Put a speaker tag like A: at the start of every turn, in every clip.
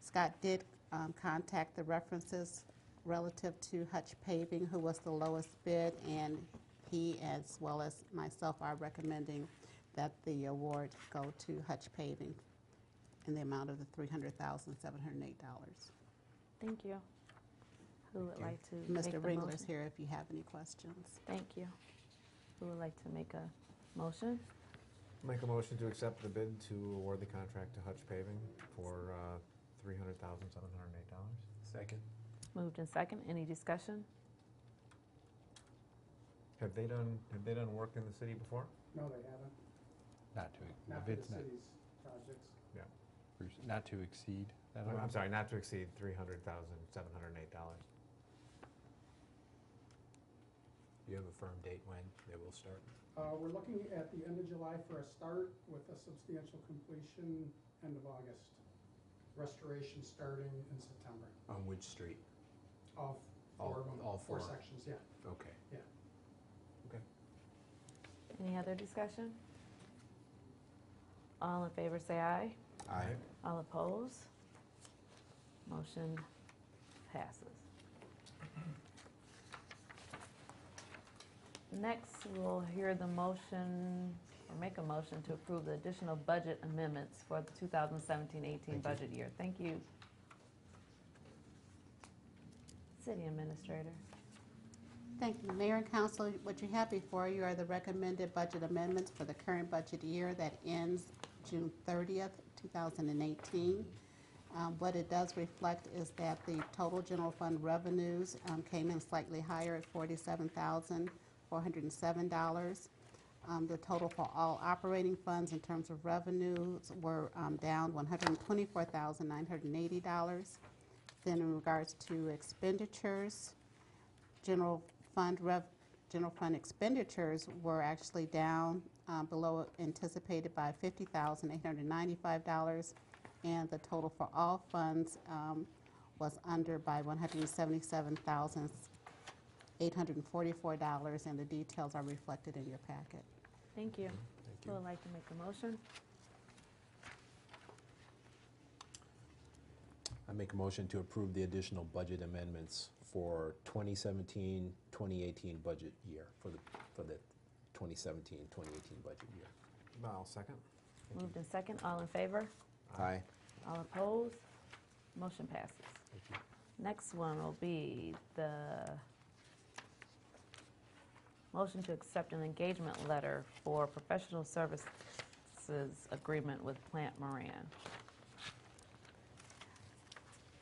A: Scott did um, contact the references relative to Hutch Paving, who was the lowest bid, and he, as well as myself, are recommending that the award go to Hutch Paving in the amount of the $300,708.
B: Thank you. Who would like to make the
A: Mr. Ringler's
B: motion?
A: here if you have any questions.
B: Thank you. Who would like to make a motion?
C: Make a motion to accept the bid to award the contract to Hutch Paving for uh, $300,708.
D: Second.
B: Moved in second. Any discussion?
C: Have they done, have they done work in the city before?
E: No, they haven't,
D: Not to,
E: not
D: if
E: for the
D: it's not,
E: city's projects.
D: for- not to exceed that
C: I'm
D: amount.
C: sorry, not to exceed $300,708.
D: You have a firm date when they will start?
E: Uh, We're looking at the end of July for a start with a substantial completion end of August. Restoration starting in September
D: On which street?
E: of
D: All-
E: four of them.
D: all four.
E: sections, yeah.
D: Okay.
B: Any other discussion? All in favor, say aye.
D: Aye.
B: All opposed? Motion passes. Next, we'll hear the motion, or make a motion to approve the additional budget amendments for the 2017-18
D: Thank you.
B: budget year. Thank you. City Administrator.
A: Thank you, Mayor and Council. What you have before you are the recommended budget amendments for the current budget year that ends June 30th, 2018. Um, What it does reflect is that the total general fund revenues um, came in slightly higher at $47,407. Um, The total for all operating funds in terms of revenues were um, down $124,980. Then in regards to expenditures, general fund rev, general fund expenditures were actually down um, below anticipated by $50,895, and the total for all funds um, was under by $177,844, and the details are reflected in your packet.
B: Thank you.
D: Thank
B: Who
D: you.
B: would like to make a motion?
F: I make a motion to approve the additional budget amendments for 2017, 2018 budget year, for the, for the 2017, 2018 budget year.
C: I'll second. Thank you.
B: Moved in second. All in favor?
F: Aye.
B: All opposed? Motion passes.
D: Thank you.
B: Next one will be the motion to accept an engagement letter for professional services agreement with Plant Moran.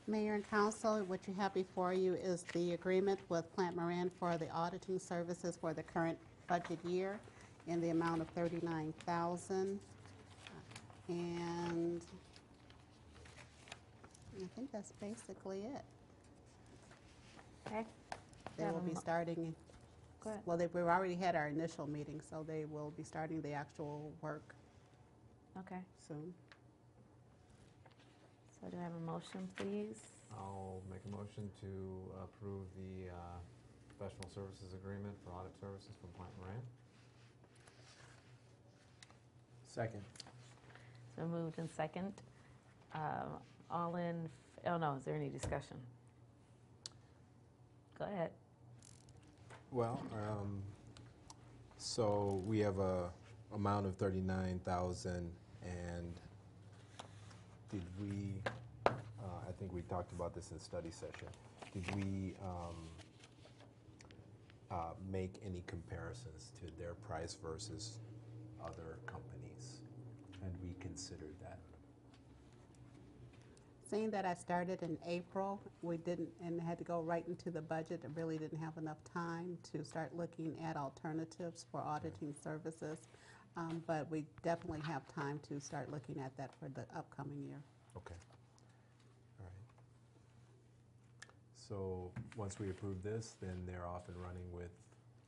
A: Mayor and council, what you have before you is the agreement with Plant Moran for the auditing services for the current budget year in the amount of 39000 And I think that's basically it.
B: Okay?
A: They will be
B: Um,
A: starting,
B: Go ahead.
A: well, they- we've already had our initial meeting, so they will be starting the actual work
B: Okay,
A: soon.
B: so do I have a motion, please?
C: I'll make a motion to approve the uh, professional services agreement for audit services from Plant Moran.
F: Second.
B: So moved in second. Um, All in, f- oh no, is there any discussion? Go ahead.
F: Well, um, so we have a amount of 39,000 and did we, uh, I think we talked about this in study session. Did we um, uh, make any comparisons to their price versus other companies? And we considered that.
A: Seeing that I started in April, we didn't, and had to go right into the budget, and really didn't have enough time to start looking at alternatives for auditing services. Um, But we definitely have time to start looking at that for the upcoming year.
F: Okay. All right. So once we approve this, then they're off and running with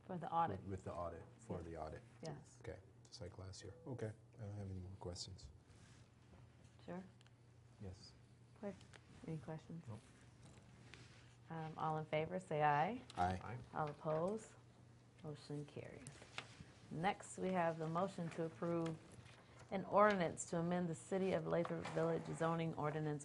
B: For the audit,
F: With- With the audit, for the audit,
B: yes,
F: okay, just like last year. Okay, I don't have any more questions.
B: sure.
C: Yes.
B: Any questions?
C: Nope.
B: Um, All in favor, say aye.
F: Aye.
C: Aye.
B: All opposed? Motion carries. Next, we have the motion to approve an ordinance to amend the City of Lathrop Village zoning ordinance